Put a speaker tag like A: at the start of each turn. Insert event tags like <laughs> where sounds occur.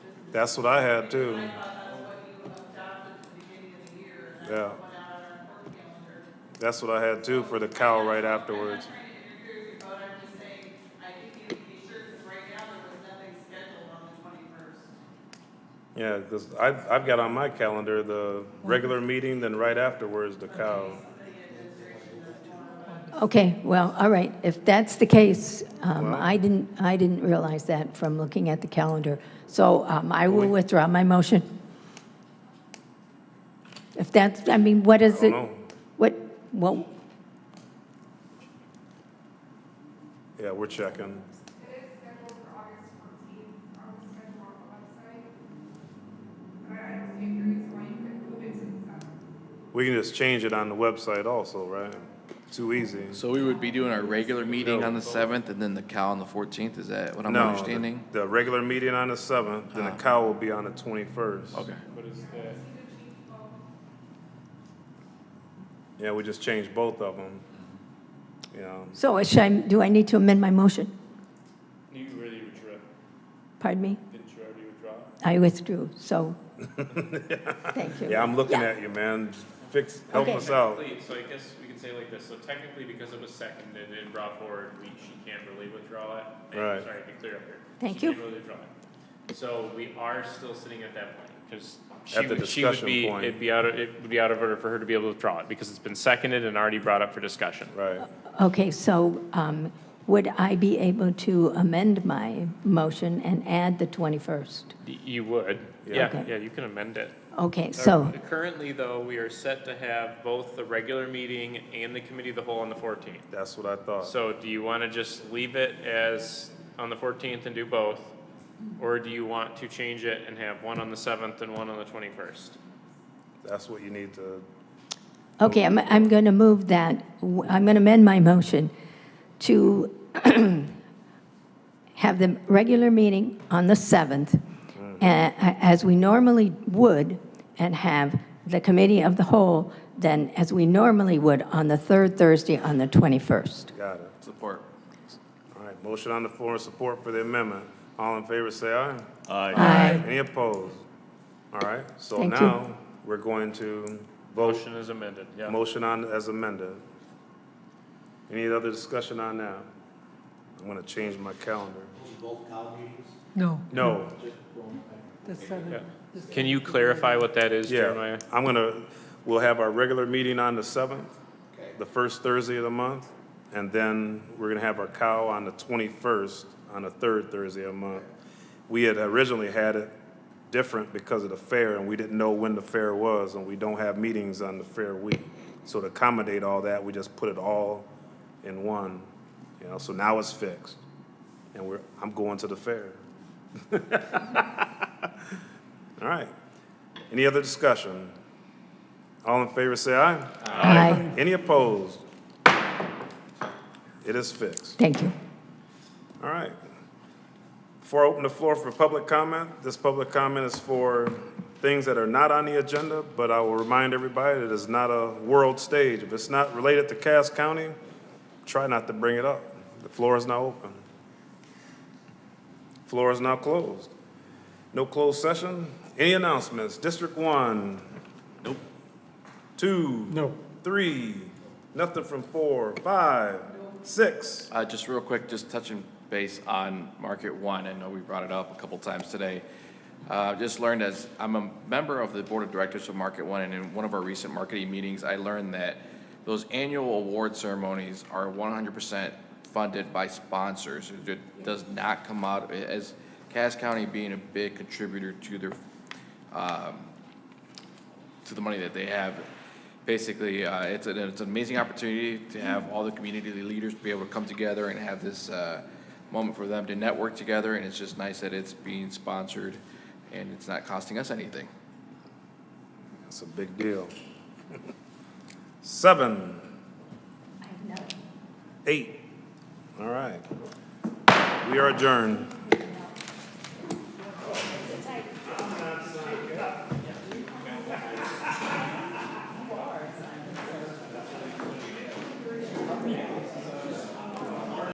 A: That's what I had too. Yeah. That's what I had too for the cow right afterwards. Yeah, because I've, I've got on my calendar the regular meeting, then right afterwards, the cow.
B: Okay, well, all right, if that's the case, um, I didn't, I didn't realize that from looking at the calendar. So um, I will withdraw my motion. If that's, I mean, what is
A: I
B: it?
A: don't know.
B: What, well,
A: Yeah, we're checking. We can just change it on the website also, right? Too easy.
C: So we would be doing our regular meeting on the seventh and then the cow on the fourteenth, is that what I'm
A: No, the-
C: understanding?
A: The regular meeting on the seventh, then the
C: Ah.
A: cow will be on the twenty-first.
C: Okay,
A: Yeah, we just changed both of them. You know,
B: so should I, do I need to amend my motion?
D: You really withdraw,
B: Pardon me?
D: didn't you already withdraw?
B: I withdrew,
A: <laughs>
B: so, thank you.
A: yeah, I'm looking
B: Yeah.
A: at you, man. Fix, help
B: Okay.
A: us out.
D: Technically, So I guess we could say like this, so technically because it was seconded and brought forward, we, she can't really withdraw it. And-
A: Right.
D: Sorry, to be clear up here.
B: Thank
D: She
B: you.
D: can't really withdraw it. So we are still sitting at that point, because
A: At
D: she
A: the
D: would, she would
A: discussion
D: be,
A: point.
D: it'd be out of, it would be out of order for her to be able to withdraw it, because it's been seconded and already brought up for discussion.
A: Right.
B: Okay, so um, would I be able to amend my motion and add the 21st?
D: Y- You would,
A: Yeah.
D: yeah,
B: Okay.
D: yeah, you can amend it.
B: Okay, so,
D: Currently, though, we are set to have both the regular meeting and the committee of the whole on the fourteenth.
A: That's what I thought.
D: So do you want to just leave it as on the fourteenth and do both? Or do you want to change it and have one on the seventh and one on the twenty-first?
A: That's what you need to,
B: okay, I'm, I'm going to move that, I'm going to amend my motion to <clears throat> have the regular meeting on the 7th, a- as we normally would, and have the committee of the whole then as we normally would on the third Thursday on the 21st.
A: got it.
C: support.
A: All right, motion on the floor and support for the amendment. All in favor, say aye.
B: Aye.
A: Any opposed? All right, so
B: Thank you.
A: now we're going to vote,
D: Motion is amended, yeah.
A: motion on as amended. Any other discussion on that? I'm gonna change my calendar.
E: No,
A: No,
E: the seventh.
D: Can you clarify what that is,
A: yeah,
D: Jeremiah?
A: I'm gonna, we'll have our regular meeting on the seventh, the first Thursday of the month, and then we're gonna have our cow on the twenty-first, on the third Thursday of the month. We had originally had it different because of the fair, and we didn't know when the fair was, and we don't have meetings on the fair week. So to accommodate all that, we just put it all in one, you know, so now it's fixed. And we're, I'm going to the fair. <laughs> All right. Any other discussion? All in favor, say aye.
B: Aye.
A: Any opposed? It is fixed.
B: Thank you.
A: All right. Before I open the floor for public comment, this public comment is for things that are not on the agenda, but I will remind everybody that it's not a world stage. If it's not related to Cass County, try not to bring it up. The floor is now open. Floor is now closed. No closed session. Any announcements? District one? Nope. Two? No. Three? Nothing from four, five, six?
C: Uh, just real quick, just touching base on Market One, I know we brought it up a couple times today. Uh, just learned as, I'm a member of the Board of Directors of Market One, and in one of our recent marketing meetings, I learned that those annual award ceremonies are one hundred percent funded by sponsors. It does not come out, as Cass County being a big contributor to their to the money that they have. Basically, uh, it's an, it's an amazing opportunity to have all the community leaders be able to come together and have this, uh, moment for them to network together, and it's just nice that it's being sponsored and it's not costing us anything.
A: That's a big deal. Seven. Eight. All right. We are adjourned.